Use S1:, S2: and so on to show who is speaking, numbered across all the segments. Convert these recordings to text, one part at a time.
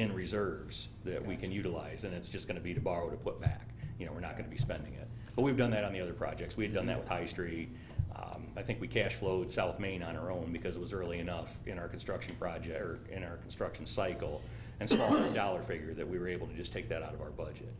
S1: in reserves that we can utilize, and it's just gonna be to borrow to put back. You know, we're not gonna be spending it. But we've done that on the other projects. We had done that with High Street. Um, I think we cash flowed South Main on our own because it was early enough in our construction project, or in our construction cycle, and small dollar figure that we were able to just take that out of our budget.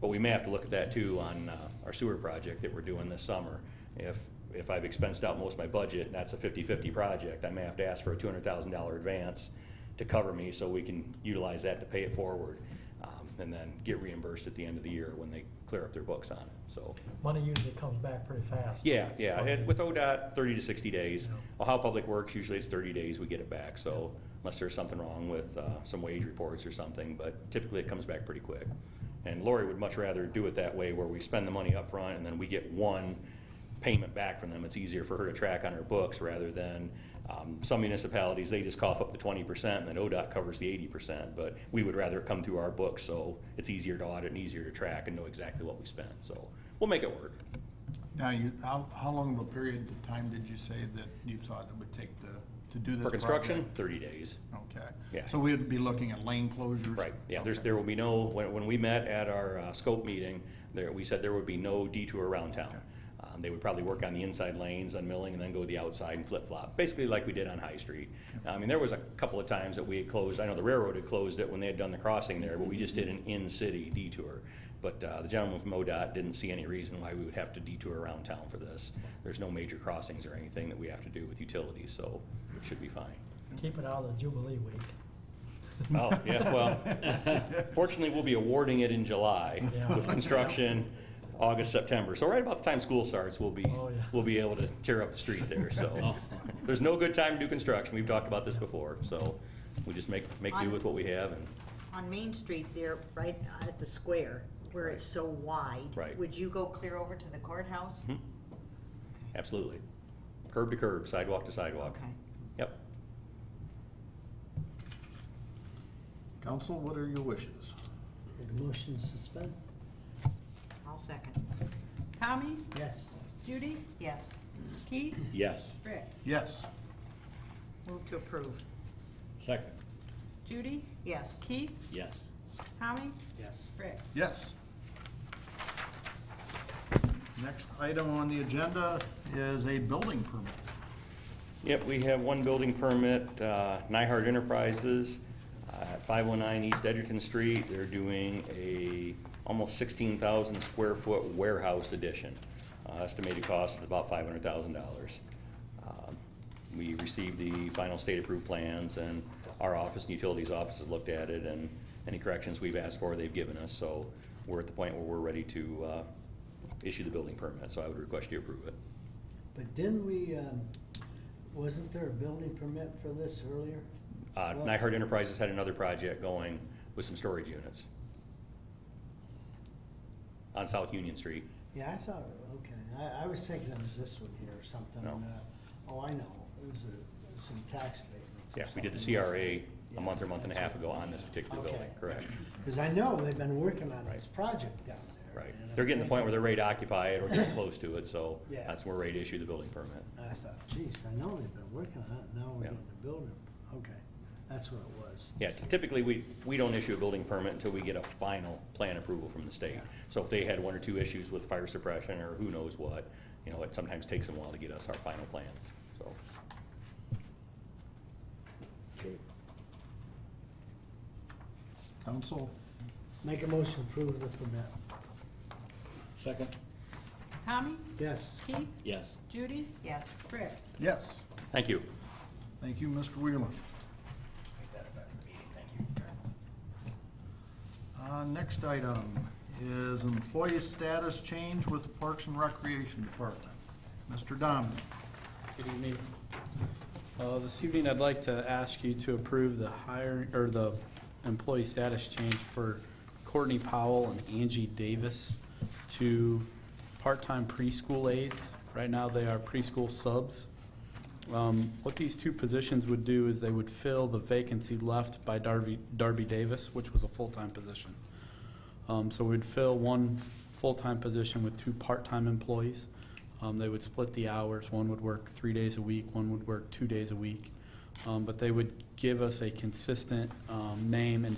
S1: But we may have to look at that too on uh, our sewer project that we're doing this summer. If, if I've expensed out most of my budget, and that's a 50-50 project, I may have to ask for a $200,000 advance to cover me so we can utilize that to pay it forward. um, And then get reimbursed at the end of the year when they clear up their books on it, so.
S2: Money usually comes back pretty fast.
S1: Yeah, yeah, and with ODOT, 30 to 60 days. Ohio Public Works, usually it's 30 days we get it back, so unless there's something wrong with uh, some wage reports or something, but typically it comes back pretty quick. And Lori would much rather do it that way, where we spend the money up front and then we get one payment back from them. It's easier for her to track on her books rather than um, some municipalities, they just cough up the 20% and then ODOT covers the 80%. But we would rather it come through our books, so it's easier to audit and easier to track and know exactly what we spent. So we'll make it work.
S3: Now, you, how, how long of a period of time did you say that you thought it would take to, to do this?
S1: For construction,
S3: project?
S1: thirty days.
S3: Okay.
S1: Yeah.
S3: So we'd be looking at lane closures?
S1: Right, yeah, there's,
S3: Okay.
S1: there will be no, when, when we met at our uh, scope meeting, there, we said there would be no detour around town. Um, They would probably work on the inside lanes on Milling and then go to the outside and flip-flop, basically like we did on High Street. I mean, there was a couple of times that we had closed, I know the railroad had closed it when they had done the crossing there, but we just did an in-city detour. But uh, the gentleman from ODOT didn't see any reason why we would have to detour around town for this. There's no major crossings or anything that we have to do with utilities, so it should be fine.
S2: Keep it out of the Jubilee week.
S1: Oh, yeah, well, fortunately, we'll be awarding it in July
S2: Yeah.
S1: with construction, August, September. So right about the time school starts, we'll be,
S2: Oh, yeah. Oh.
S1: we'll be able to tear up the street there, so. There's no good time to do construction. We've talked about this before, so we just make, make do with what we have and,
S4: On Main Street there, right at the square, where it's so wide.
S1: Right.
S4: Would you go clear over to the courthouse?
S1: absolutely. Curb to curb, sidewalk to sidewalk.
S4: Okay.
S1: Yep.
S3: Council, what are your wishes?
S5: Make a motion to suspend?
S4: I'll second.
S6: Tommy,
S5: Yes.
S6: Judy,
S4: Yes.
S6: Keith,
S7: Yes.
S6: Rick,
S3: Yes.
S4: Move to approve.
S7: Second.
S6: Judy,
S4: Yes.
S6: Keith,
S7: Yes.
S6: Tommy,
S5: Yes.
S6: Rick.
S3: Yes. Next item on the agenda is a building permit.
S1: Yep, we have one building permit, uh, Nyhard Enterprises, uh, at 519 East Edgerton Street. They're doing a almost 16,000 square foot warehouse addition. Uh, Estimated cost is about $500,000. Um, We received the final state approved plans, and our office and utilities office has looked at it, and any corrections we've asked for, they've given us. So we're at the point where we're ready to uh, issue the building permit, so I would request you approve it.
S5: But didn't we, um, wasn't there a building permit for this earlier?
S1: Uh,
S5: Well-
S1: Nyhard Enterprises had another project going with some storage units on South Union Street.
S5: Yeah, I thought, okay, I, I was thinking it was this one here or something.
S1: No.
S5: uh, Oh, I know, it was a- some tax abatements or
S1: Yeah, we did the
S5: something.
S1: CRA a
S5: Yeah,
S1: month or month and a half
S5: that's
S1: ago on this particular building,
S5: Okay.
S1: correct?
S5: right. Cause I know they've been working on this project down there.
S1: Right.
S5: and
S1: They're getting to the
S5: I'm
S1: point where
S5: thinking-
S1: they're ready to occupy it or get close to it, so
S5: Yeah.
S1: that's when we're ready to issue the building permit.
S5: I thought, geez, I know they've been working on it, now we're
S1: Yeah.
S5: getting a building, okay, that's what it was.
S1: Yeah, typically, we, we don't issue a building permit until we get a final plan approval from the state. So if they had one or two issues with fire suppression or who knows what, you know, it sometimes takes them a while to get us our final plans, so.
S5: Okay.
S3: Council,
S5: Make a motion to approve the permit.
S7: Second.
S6: Tommy,
S5: Yes.
S6: Keith,
S7: Yes.
S6: Judy,
S4: Yes.
S6: Rick.
S3: yes.
S1: Thank you.
S3: Thank you, Mr. Wheeler. Uh, next item is employee status change with Parks and Recreation Department. Mr. Dominic.
S8: Good evening. Uh, This evening, I'd like to ask you to approve the hiring, or the employee status change for Courtney Powell and Angie Davis to part-time preschool aides. Right now, they are preschool subs. Um, What these two positions would do is they would fill the vacancy left by Darby Darby Davis, which was a full-time position. Um, So we'd fill one full-time position with two part-time employees. Um, They would split the hours. One would work three days a week, one would work two days a week. Um, But they would give us a consistent um, name and